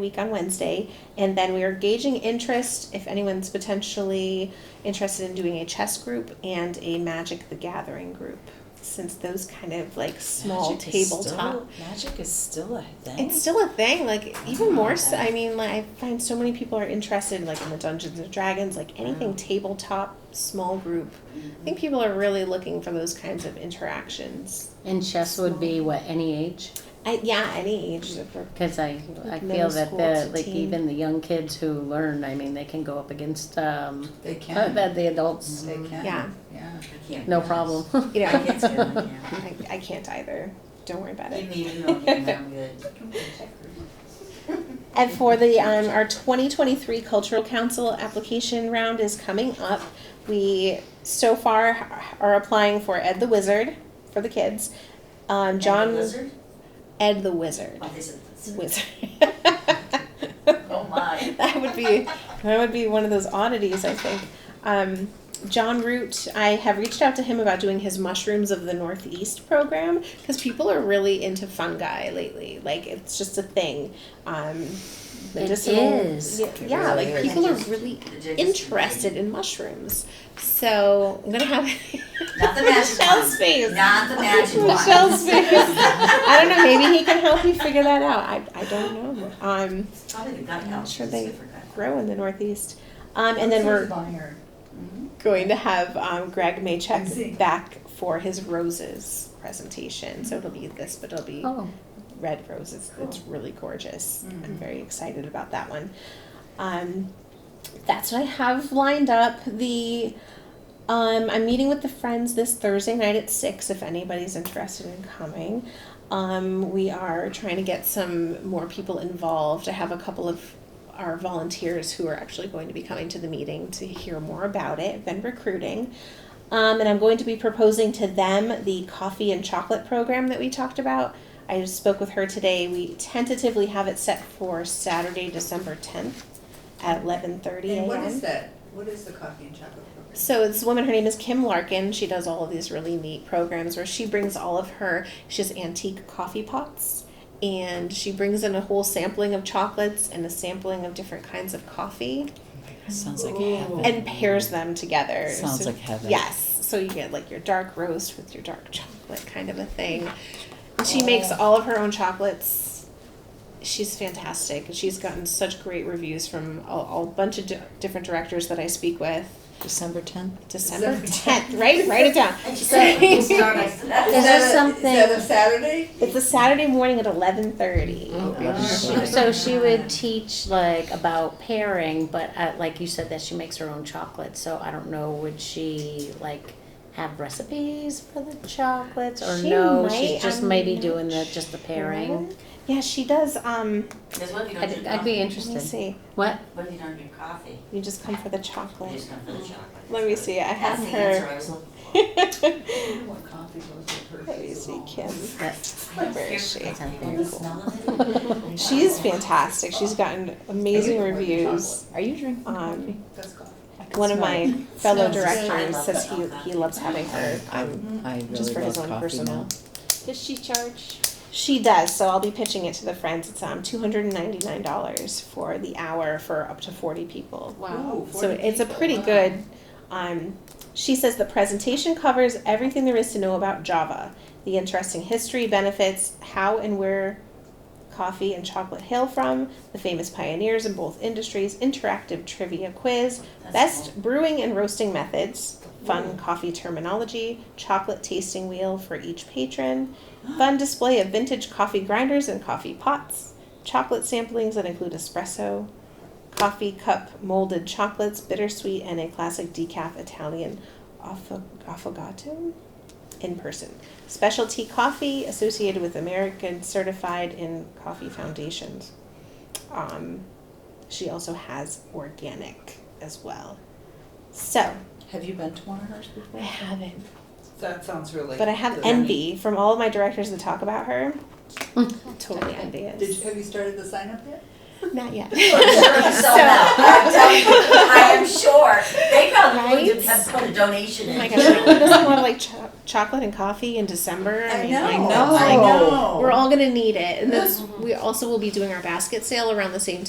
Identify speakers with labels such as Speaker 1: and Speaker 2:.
Speaker 1: week on Wednesday, and then we are gauging interest if anyone's potentially interested in doing a chess group and a Magic the Gathering group, since those kind of like small
Speaker 2: Magic is
Speaker 1: tabletop.
Speaker 2: still- Magic is still a thing. Oh
Speaker 1: It's still a thing, like even
Speaker 2: Wow.
Speaker 1: more so. I mean, like I find so many people are interested, like in the Dungeons and Dragons, like anything
Speaker 2: Wow. Mm-hmm.
Speaker 1: tabletop, small group. I think people are really looking for those kinds of interactions.
Speaker 3: And chess would be what any age,
Speaker 1: I, yeah, any age. if we're-
Speaker 3: because I I
Speaker 1: Like
Speaker 3: feel
Speaker 1: middle
Speaker 3: that
Speaker 1: school
Speaker 3: the
Speaker 1: to
Speaker 3: like
Speaker 1: teen.
Speaker 3: even the young kids who learn, I mean, they can go up against um
Speaker 4: They
Speaker 3: uh,
Speaker 4: can.
Speaker 3: the the adults,
Speaker 4: They can.
Speaker 1: Yeah.
Speaker 4: Yeah.
Speaker 3: no problem.
Speaker 1: You know,
Speaker 5: It's good, yeah.
Speaker 1: I, I can't either. Don't worry about it.
Speaker 5: You need to know that I'm good.
Speaker 1: And for the, um, our twenty twenty-three cultural council application round is coming up. We so far are applying for Ed the Wizard for the kids. Um,
Speaker 5: And the
Speaker 1: John,
Speaker 5: lizard?
Speaker 1: Ed the Wizard,
Speaker 5: Oh, this is-
Speaker 1: wizard.
Speaker 5: Oh, my.
Speaker 1: That would be, that would be one of those oddities, I think. Um, John Root, I have reached out to him about doing his Mushrooms of the Northeast program because people are really into fungi lately. Like it's just a thing. Um, medicinal.
Speaker 3: is.
Speaker 1: Yeah, yeah,
Speaker 4: really
Speaker 1: like
Speaker 4: is.
Speaker 1: people are really
Speaker 5: The jig is-
Speaker 1: interested in mushrooms. So I'm gonna have
Speaker 5: Not the magic
Speaker 1: Michelle's
Speaker 5: one.
Speaker 1: face.
Speaker 5: Not the magic one.
Speaker 1: Michelle's face. I don't know. Maybe he can help you figure that out. I, I don't know. Um,
Speaker 5: Probably the gut health.
Speaker 1: Sure
Speaker 5: is
Speaker 1: they-
Speaker 5: good for gut.
Speaker 1: grow in the Northeast. Um, and then we're
Speaker 4: Fire.
Speaker 5: Mm-hmm.
Speaker 1: going to have um, Greg Maychek
Speaker 4: Amazing.
Speaker 1: back for his roses presentation. So it'll be this, but it'll be
Speaker 3: Oh,
Speaker 1: red roses. It's really gorgeous. I'm very excited about that one. Um, that's what I have lined up. The um, I'm meeting with the friends this Thursday night at six. If anybody's interested in coming, um, we are trying to get some more people involved. I have a couple of our volunteers who are actually going to be coming to the meeting to hear more about it. I've been recruiting. Um, and I'm going to be proposing to them the coffee and chocolate program that we talked about. I just spoke with her today. We tentatively have it set for Saturday, December 10th at 11:30 a.m.
Speaker 4: And what is that? What is the coffee and chocolate program?
Speaker 1: So this woman, her name is Kim Larkin. She does all of these really neat programs where she brings all of her. She has antique coffee pots, and she brings in a whole sampling of chocolates and a sampling of different kinds of coffee,
Speaker 2: Sounds like
Speaker 4: Ooh.
Speaker 2: heaven.
Speaker 1: and pairs them together.
Speaker 2: Sounds
Speaker 1: So-
Speaker 2: like heaven.
Speaker 1: Yes. So you get like your dark roast with your dark chocolate kind of a thing. And She makes
Speaker 3: Oh.
Speaker 1: all of her own chocolates. She's fantastic. She's gotten such great reviews from a, a bunch of di- different directors that I speak with.
Speaker 2: December tenth.
Speaker 1: December
Speaker 4: December
Speaker 1: tenth, right? Write it down.
Speaker 3: Is
Speaker 5: That's
Speaker 3: there
Speaker 4: that a-
Speaker 3: something-
Speaker 4: Is that a Saturday?
Speaker 1: It's a Saturday morning at eleven thirty.
Speaker 3: Oh. She- so she would teach like about pairing, but uh, like you said that she makes her own chocolate. So I don't know, would she like have recipes for the chocolates or
Speaker 1: She
Speaker 3: no?
Speaker 1: might,
Speaker 3: she's just
Speaker 1: I'm
Speaker 3: maybe
Speaker 1: not
Speaker 3: doing the just the pairing.
Speaker 1: Yeah, she does. Um,
Speaker 5: what if you don't
Speaker 3: I'd,
Speaker 5: drink
Speaker 3: I'd be
Speaker 5: coffee?
Speaker 1: let me
Speaker 3: interested.
Speaker 1: see.
Speaker 3: What?
Speaker 5: What if you don't drink coffee?
Speaker 1: You just come for the
Speaker 5: You
Speaker 1: chocolate.
Speaker 5: just come for the chocolate.
Speaker 1: Let me see. I have
Speaker 5: That's the answer I was looking for.
Speaker 1: her.
Speaker 4: What coffee goes with
Speaker 1: Let me see, Kim.
Speaker 3: That-
Speaker 1: Where is she?
Speaker 3: that sounds
Speaker 5: And
Speaker 3: very
Speaker 5: the
Speaker 3: cool.
Speaker 5: smell of it.
Speaker 1: She's fantastic. She's gotten amazing reviews.
Speaker 6: Are you drinking
Speaker 1: Um,
Speaker 4: That's coffee.
Speaker 1: one of my fellow
Speaker 2: Smells
Speaker 1: directors
Speaker 5: good.
Speaker 1: says he he loves having her. Um,
Speaker 2: I really
Speaker 1: Just for his
Speaker 2: love
Speaker 1: own
Speaker 2: coffee
Speaker 1: personal-
Speaker 2: now.
Speaker 7: Does she charge?
Speaker 1: She does, so I'll be pitching it to the friends. It's um two hundred and ninety nine dollars for the hour for up to forty people.
Speaker 7: Wow.
Speaker 4: Ooh,
Speaker 1: So
Speaker 4: 40
Speaker 1: it's a
Speaker 4: people,
Speaker 1: pretty
Speaker 4: wow.
Speaker 1: good. Um, she says the presentation covers everything there is to know about Java, the interesting history, benefits, how and where coffee and chocolate hail from, the famous pioneers in both industries, interactive trivia quiz,
Speaker 5: That's
Speaker 1: best brewing and roasting methods, fun coffee terminology, chocolate tasting wheel for each patron, fun display of vintage coffee grinders and coffee pots, chocolate samplings that include espresso, coffee cup molded chocolates, bittersweet, and a classic decaf Italian affa- affogato in person. Specialty coffee associated with American certified in coffee foundations. Um, she also has organic as well. So
Speaker 2: Have you been to one of hers before?
Speaker 1: I haven't,
Speaker 4: That sounds really.
Speaker 1: but I have
Speaker 4: good.
Speaker 1: envy from all of my directors that talk about her. Hmm. totally
Speaker 4: Did you,
Speaker 1: envious.
Speaker 4: have you started the sign up yet?
Speaker 1: Not yet.
Speaker 5: I'm sure you sold out. I'm telling you, I am sure. They probably
Speaker 1: Right?
Speaker 5: would have put a donation
Speaker 1: Oh
Speaker 5: in.
Speaker 1: my gosh, who doesn't want to like cho- chocolate and coffee in December.
Speaker 4: I
Speaker 1: mean,
Speaker 4: know.
Speaker 1: like,
Speaker 2: know.
Speaker 1: that's like-
Speaker 4: I know. Mm-hmm.
Speaker 1: We're all gonna need it, and that's we also will be doing our basket sale around the same time.